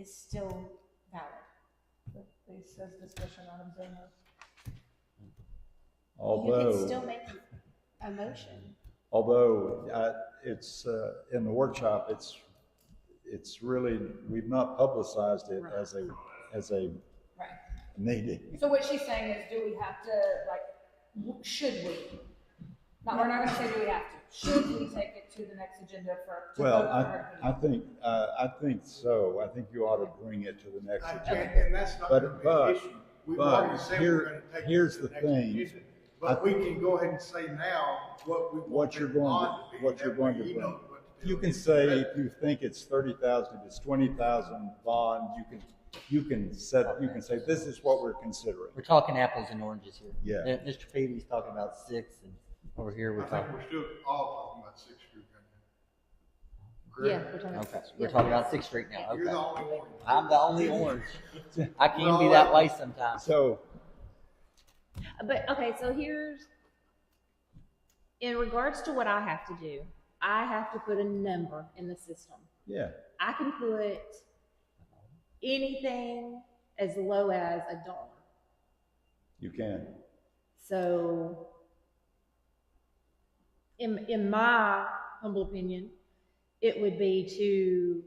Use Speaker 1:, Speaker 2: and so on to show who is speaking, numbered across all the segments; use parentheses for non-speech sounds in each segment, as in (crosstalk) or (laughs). Speaker 1: is still valid.
Speaker 2: But It says discussion items in here.
Speaker 1: You can still
Speaker 3: Although,
Speaker 1: make a motion.
Speaker 3: although uh, it's, uh, in the workshop, it's, it's really, we've not publicized it as a, as a
Speaker 4: Right.
Speaker 3: meeting.
Speaker 4: So what she's saying is, do we have to, like, w- should we? Not, we're not gonna say do we have to, should we take it to the next agenda for, to
Speaker 3: Well,
Speaker 4: vote for
Speaker 3: I, I
Speaker 4: her?
Speaker 3: think, uh, I think so. I think you ought to bring it to the next
Speaker 5: I
Speaker 3: agenda.
Speaker 5: can't, and that's not gonna
Speaker 3: But,
Speaker 5: be an
Speaker 3: but,
Speaker 5: issue. We've already
Speaker 3: but,
Speaker 5: said we're gonna
Speaker 3: here,
Speaker 5: take. it
Speaker 3: here's
Speaker 5: to
Speaker 3: the
Speaker 5: next
Speaker 3: thing.
Speaker 5: agenda. But we can go ahead and say now what we.
Speaker 3: what
Speaker 5: want
Speaker 3: you're
Speaker 5: it
Speaker 3: going,
Speaker 5: not
Speaker 3: to
Speaker 5: be.
Speaker 3: what
Speaker 5: That
Speaker 3: you're going
Speaker 5: way
Speaker 3: to
Speaker 5: you
Speaker 3: bring.
Speaker 5: know what to do.
Speaker 3: You can say if you think it's thirty thousand, if it's twenty thousand bond, you can, you can set, you can say, this is what we're considering.
Speaker 6: We're talking apples and oranges here.
Speaker 3: Yeah.
Speaker 6: Uh, Mr. Peavy's talking about six, and over here
Speaker 5: I
Speaker 6: we're
Speaker 5: think
Speaker 6: talking.
Speaker 5: we're still all talking about Sixth Street right
Speaker 1: Yeah,
Speaker 5: now.
Speaker 1: we're talking about
Speaker 6: Okay,
Speaker 1: this.
Speaker 6: we're
Speaker 1: Yeah.
Speaker 6: talking about Sixth Street now.
Speaker 5: Correct? You're the
Speaker 6: Okay,
Speaker 5: only one.
Speaker 6: I'm the
Speaker 5: (laughs)
Speaker 6: only orange. I can be that way sometimes.
Speaker 3: So,
Speaker 1: But okay, so here's in regards to what I have to do, I have to put a number in the system.
Speaker 3: yeah,
Speaker 1: I can put anything as low as a dollar.
Speaker 3: you can.
Speaker 1: So in in my humble opinion, it would be to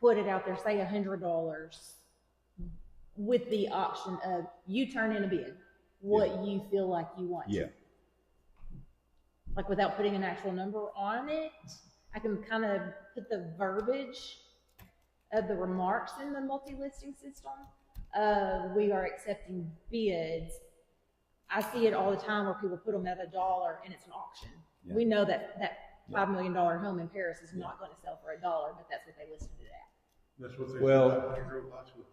Speaker 1: put it out there, say a hundred dollars with the option of you turn in a bid, what you feel like you want. to.
Speaker 3: Yeah.
Speaker 1: like without putting an actual number on it. I can kind of put the verbiage of the remarks in the multi-listing system. Uh, we are accepting bids. I see it all the time where people put them at a dollar and it's an auction. We know that that five million dollar home in Paris is not going to sell for a dollar, but that's what they listed it at.
Speaker 5: That's what they.
Speaker 3: Well-
Speaker 5: said about Negro High School.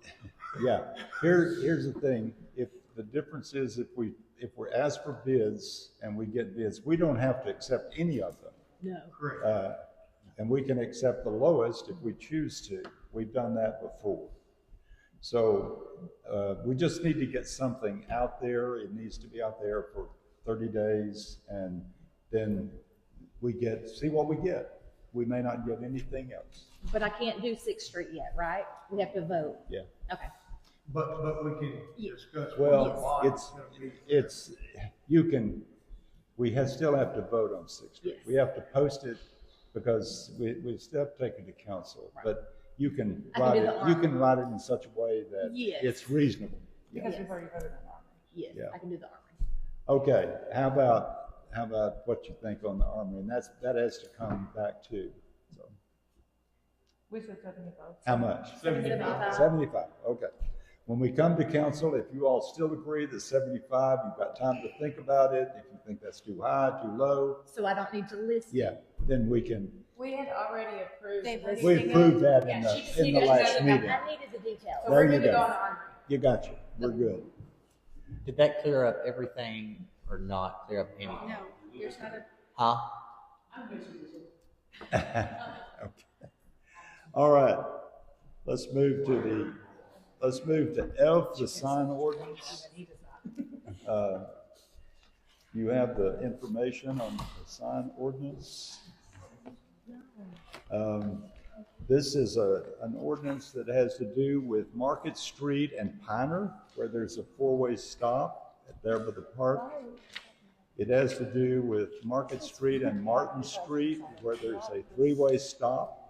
Speaker 3: Yeah, here, here's the thing, if, the difference is if we, if we're asked for bids and we get bids, we don't have to accept any of them.
Speaker 1: No.
Speaker 5: Correct.
Speaker 3: Uh, and we can accept the lowest if we choose to. We've done that before. So uh, we just need to get something out there. It needs to be out there for 30 days, and then we get, see what we get. We may not get anything else.
Speaker 1: But I can't do Sixth Street yet, right? We have to vote.
Speaker 3: Yeah.
Speaker 1: Okay.
Speaker 5: But, but we can discuss. what the
Speaker 3: Well,
Speaker 5: bond is
Speaker 3: it's,
Speaker 5: gonna be.
Speaker 3: it's, you can, we have, still have to vote on Sixth Street.
Speaker 1: Yes.
Speaker 3: We have to post it because we, we still have to take it to council. But you can
Speaker 1: I can
Speaker 3: write
Speaker 1: do
Speaker 3: it,
Speaker 1: the
Speaker 3: you can write it in such a way that
Speaker 1: Yes.
Speaker 3: it's reasonable.
Speaker 4: Because we've already voted on that.
Speaker 1: Yes,
Speaker 3: Yeah.
Speaker 1: I can do the armory.
Speaker 3: Okay, how about, how about what you think on the armory? And that's, that has to come back too. So,
Speaker 4: We should definitely vote.
Speaker 3: how much? Seventy-five, okay. When we come to council, if you all still agree that seventy-five, you've got time to think about it. If you think that's too high, too low,
Speaker 1: So I don't need to list.
Speaker 3: yeah, then we can,
Speaker 4: We had already approved.
Speaker 1: They've
Speaker 4: this.
Speaker 3: we approved that in
Speaker 4: Yeah, she just
Speaker 3: the, uh, in the
Speaker 4: needed to
Speaker 3: last
Speaker 4: know that
Speaker 3: meeting.
Speaker 1: I needed the details.
Speaker 4: So we're
Speaker 3: There you
Speaker 4: gonna go
Speaker 3: go.
Speaker 4: on our.
Speaker 3: You got you, we're good.
Speaker 6: Did that clear up everything or not clear up anything?
Speaker 4: No, there's not a.
Speaker 6: Huh?
Speaker 3: Okay. All right, let's move to the, let's move to F, the sign ordinance. Uh, You have the information on the sign ordinance. Um, This is a, an ordinance that has to do with Market Street and Piner, where there's a four-way stop there by the park. It has to do with Market Street and Martin Street, where there's a three-way stop.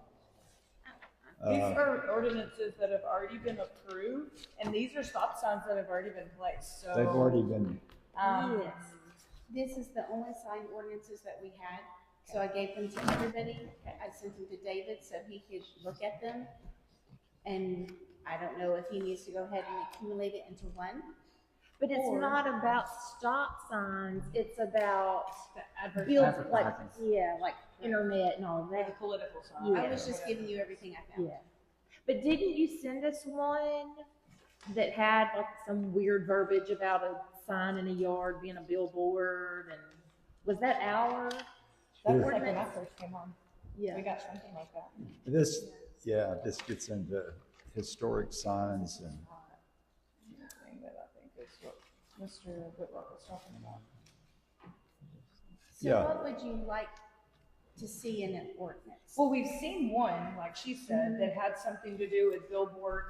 Speaker 4: These
Speaker 3: Uh,
Speaker 4: are ordinances that have already been approved, and these are stop signs that have already been placed, so.
Speaker 3: They've already been,
Speaker 4: Um,
Speaker 1: Yes.
Speaker 7: This is the only sign ordinances that we had, so I gave them to everybody. I sent them to David so he could look at them. And I don't know if he needs to go ahead and accumulate it into one.
Speaker 1: But it's
Speaker 7: Or-
Speaker 1: not about stop signs. It's about build,
Speaker 4: Advertising.
Speaker 1: like
Speaker 6: Advertising.
Speaker 1: yeah, like internet and all
Speaker 4: Like a
Speaker 1: that.
Speaker 4: political sign.
Speaker 1: Yeah.
Speaker 7: I was just giving you everything I found.
Speaker 1: Yeah. But didn't you send us one that had like some weird verbiage about a sign in a yard being a billboard? And was that our?
Speaker 4: That
Speaker 3: Sure.
Speaker 4: was like when I first came on,
Speaker 1: Yeah.
Speaker 4: we got something like that.
Speaker 3: this, yeah, this gets into historic signs and
Speaker 4: Thing that I think is what Mr. Whitlock was talking about.
Speaker 7: So
Speaker 3: Yeah.
Speaker 7: what would you like to see in an ordinance?
Speaker 4: Well, we've seen one, like she said, that had something to do with billboards